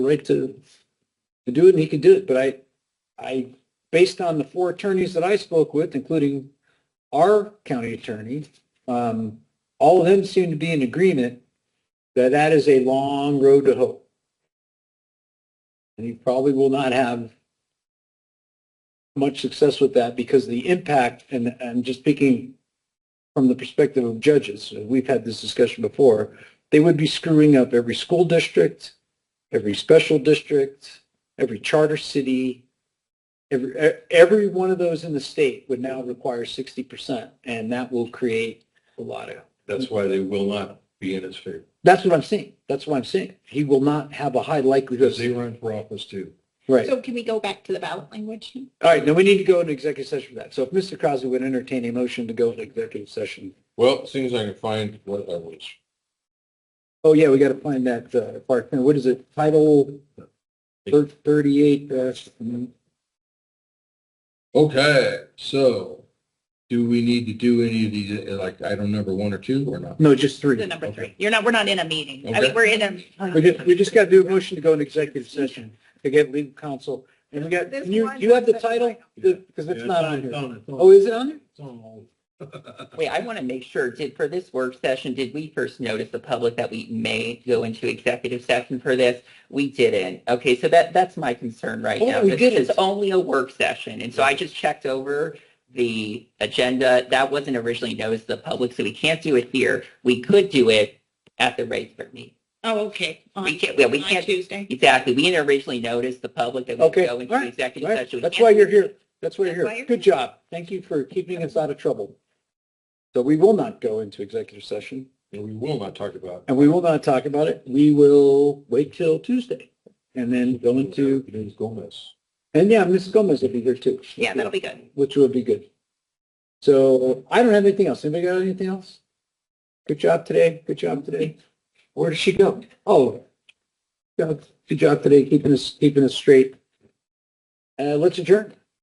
right to, to do it and he could do it. But I, I, based on the four attorneys that I spoke with, including our county attorney, um, all of them seem to be in agreement that that is a long road to hope. And he probably will not have much success with that because the impact, and I'm just speaking from the perspective of judges, we've had this discussion before, they would be screwing up every school district, every special district, every charter city, every, e- every one of those in the state would now require 60%, and that will create a lot of That's why they will not be in his favor, that's what I'm saying. That's what I'm saying. He will not have a high because likelihood. they run for office too. Right. All So can we go back to the ballot language? right. Now we need to go into executive session for that. So if Mr. Crosby would entertain a motion to go into executive session. Well, as soon as I can find what I was. Oh, yeah, we got to find that uh, part. What is it? Title thir- 38. Uh, Okay, so do we need to do any of these, uh, like item number one or two or not? no, just three. The number three. You're not, we're not in a meeting. I Okay. mean, we're in uh, a. We just, we just got to do a motion to go into executive session to get legal counsel. And we got, This and you, one you have the doesn't- title? Because it's not on here. Oh, here. is it on there? Wait, I want to make sure, did, for this work session, did we first notice the public that we may go into executive session for this? We didn't. Okay, so that, that's my concern right Oh, now. we This didn't. is only a work session, and so I just checked over the agenda. That wasn't originally noticed to the public, so we can't do it here. We could do it at the regular meeting. Oh, okay. On- We can't- yeah, we on can't- Tuesday. Exactly, we didn't originally notice the public that we Okay, would go into alright, executive alright. session. We That's can't why do you're it. here. That's why you're That's why here. you're Good here. job. Thank you for keeping us out of trouble. So we will not go into executive session And we will not talk about. and we will not talk about it. We will wait till Tuesday and then go into, Ms. Gomez. and yeah, Mrs. Gomez will be here too. Yeah, that'll be good. Which would be good. So I don't have anything else. Anybody got anything else? Good job today. Good job today. Where did she go? Oh, good job- good job today, keeping us, keeping us straight. Uh, let's adjourn.